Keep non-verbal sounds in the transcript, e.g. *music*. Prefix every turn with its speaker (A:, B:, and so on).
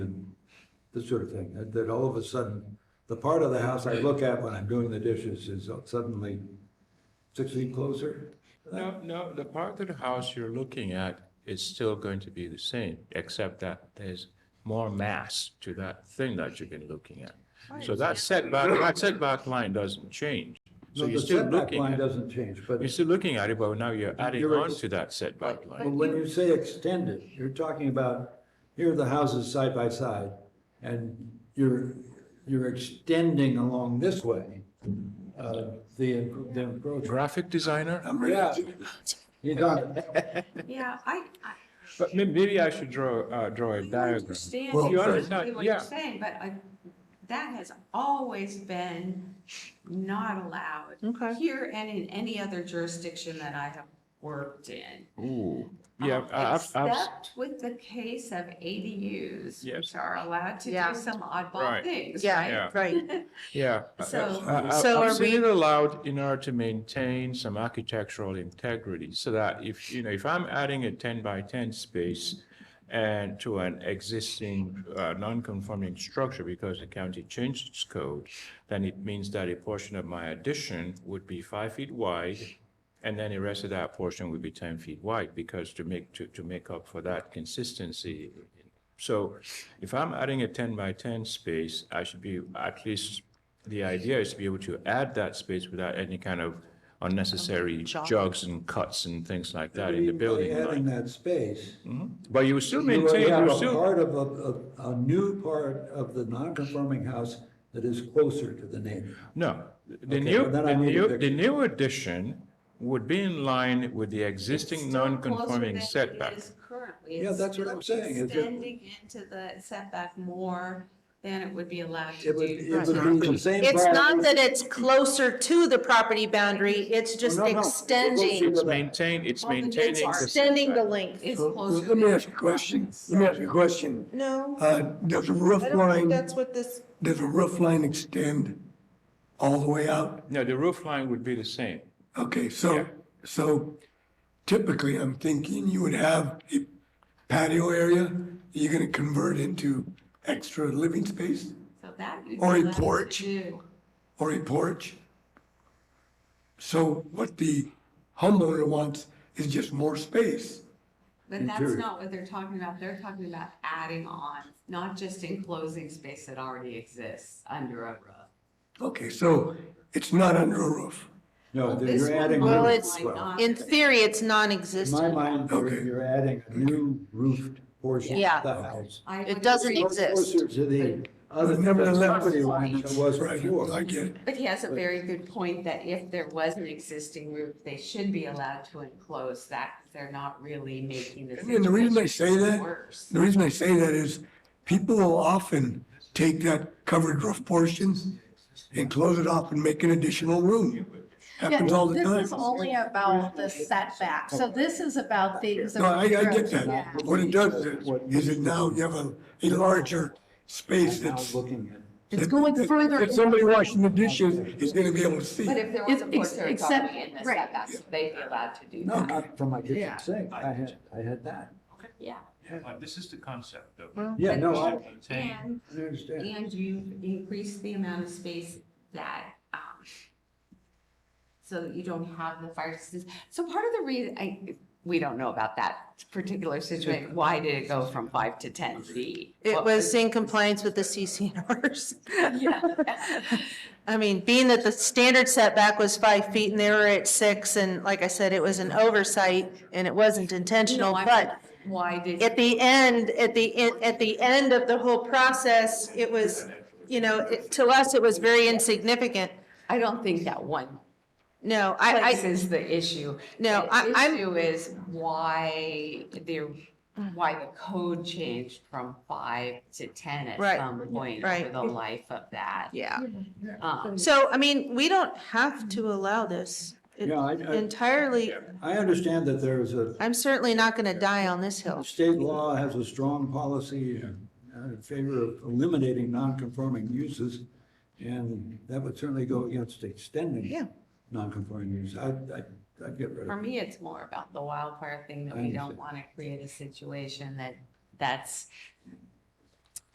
A: this sort of thing, that, that all of a sudden, the part of the house I look at when I'm doing the dishes is suddenly six feet closer.
B: No, no, the part of the house you're looking at is still going to be the same, except that there's more mass to that thing that you've been looking at. So that setback, that setback line doesn't change. So
A: No,
B: you're
A: the
B: still
A: setback
B: looking,
A: Line
B: at-
A: doesn't change, but
B: you're still looking at it, but now you're adding
A: You're
B: on
A: ex-
B: to that setback
A: but
B: line.
A: when you say extended, you're talking about, here are the houses side by side, and you're, you're extending along this way, uh, the, the encroachment.
B: Graphic designer?
A: Yeah. You don't,
C: Yeah, I, I
B: But may- maybe I should draw, uh, draw a diagram.
C: understand
B: Well, You
C: exactly
B: understand,
C: what you're
B: yeah.
C: saying, but I, that has always been not allowed.
D: Okay.
C: Here and in any other jurisdiction that I have worked in.
B: Ooh, yeah,
C: Um,
B: I- I've, I've,
C: Except with the case of ADUs,
B: Yes.
C: which are allowed to
D: Yeah.
C: do some oddball
B: Right.
C: things,
D: Yeah,
C: right?
B: Yeah.
A: *laughs*
D: Right,
B: yeah. I-
C: So-
B: I- I-
D: Uh, So
B: I've
D: are
B: seen
D: we-
B: it allowed in order to maintain some architectural integrity, so that if, you know, if I'm adding a ten by ten space and to an existing, uh, non-conforming structure because the county changed its code, then it means that a portion of my addition would be five feet wide, and then the rest of that portion would be ten feet wide, because to make, to, to make up for that consistency. So if I'm adding a ten by ten space, I should be, at least, the idea is to be able to add that space without any kind of unnecessary
D: Jog.
B: jogs and cuts and things like that in the
A: even by
B: building
A: adding
B: line.
A: that space.
B: But you would still
A: You
B: maintain, you
A: have
B: would
A: a
B: still,
A: part of a, a, a new part of the non-conforming house that is closer to the neighbor.
B: no, the
A: Okay,
B: new,
A: well, then I
B: the
A: need a
B: new,
A: picture.
B: the new addition would be in line with the existing
C: Still closer
B: non-conforming
C: than it
B: setback.
C: is Currently.
A: Yeah,
C: It's
A: that's what I'm
C: still
A: saying, is it-
C: Extending into the setback more than it would be allowed to
A: It would,
C: do.
A: it would be the same.
D: it's
A: part-
D: not that it's closer to the property boundary, it's just
A: No, no, we'll see
D: extending,
A: what-
B: It's maintained, it's
C: Well, the big
B: maintaining.
C: part.
B: the
D: extending the
B: setback.
D: length.
C: It's
A: Uh,
E: So,
C: closer.
E: Let me
C: than
E: ask you a question. Let me ask you a question.
D: No,
E: Uh, does a roof
D: I don't think
E: line,
D: that's what this,
E: does a roof line extend all the way out?
B: No, the roof line would be the same.
E: Okay, so, so typically I'm thinking you would have a patio area that you're gonna convert into extra living space
C: So that you'd be
E: Or a
C: allowed to
E: porch.
C: do.
E: or a porch. So what the homeowner wants is just more space.
C: But that's
A: Interior.
C: not what they're talking about. They're talking about adding on, not just enclosing space that already exists under a roof.
E: Okay, so it's not under a roof.
A: No, that
C: This
A: you're
C: one
A: Oh, adding.
D: Well,
A: new-
D: it's
C: might not.
D: in theory, it's
A: In my
D: non-existent.
A: mind, you're,
E: Okay.
A: you're adding a new roofed portion
D: Yeah.
A: of the house.
C: I
D: It
C: would
D: doesn't
C: agree.
D: exist.
A: Closer to the other
E: Nevertheless-
A: property line than it was
E: Right,
A: before.
E: I get it.
C: But he has a very good point that if there was an existing roof, they should be allowed to enclose that. They're not really making the
E: And the reason I say
C: situation
E: that-
C: Worse.
E: The reason I say that is people will often take that covered roof portion and close it off and make an additional room. Happens all the
F: Yeah, This is
E: time.
F: only about the setback, so this is about things.
E: No, I, I get
F: Yeah.
E: that. What it does is, is it now you have a, a larger space
A: Now
E: that's.
A: looking at.
F: It's going further.
E: If somebody washing the dishes is gonna be able to see.
C: But if there was a
F: It- ex-
C: porch, there was
F: except-
C: already in the
F: right.
C: setback, so they'd be allowed to do
A: No,
C: that.
A: not from my kitchen
F: Yeah.
A: sink. I had, I had that.
C: Yeah.
B: But this is the concept of.
A: Yeah, no, I,
B: Maintain.
C: And
A: I understand.
C: And you've increased the amount of space that, um, so that you don't have the fire system. So part of the reason, I, we don't know about that particular situation, why did it go from five to ten feet?
D: It
C: What
D: was in compliance with the CCNRs.
C: *laughs* Yeah.
D: I mean, being that the standard setback was five feet and they were at six, and like I said, it was an oversight and it wasn't intentional,
C: No, I-
D: but
C: Why did?
D: at the end, at the, en- at the end of the whole process, it was, you know, it- to us, it was very insignificant.
C: I don't think that one
D: No,
C: place
D: I,
C: is the issue.
D: No, I-
C: The
D: I'm-
C: Issue is why the, why the code changed from five to ten at
D: Right,
C: some point
D: right.
C: over the life of that.
D: I, yeah.
C: Um,
D: So, I mean, we don't have to allow this It-
A: Yeah, I- I-
D: entirely.
A: I understand that there is a,
D: I'm certainly not going to die on this hill.
A: state law has a strong policy uh, in favor of eliminating non-conforming uses. And that would certainly go against
D: Yeah.
A: extending non-conforming use. I, I, I'd get rid
C: For
A: of it.
C: me, it's more about the wildfire thing that
A: I
C: we
A: understand.
C: don't want to create a situation that that's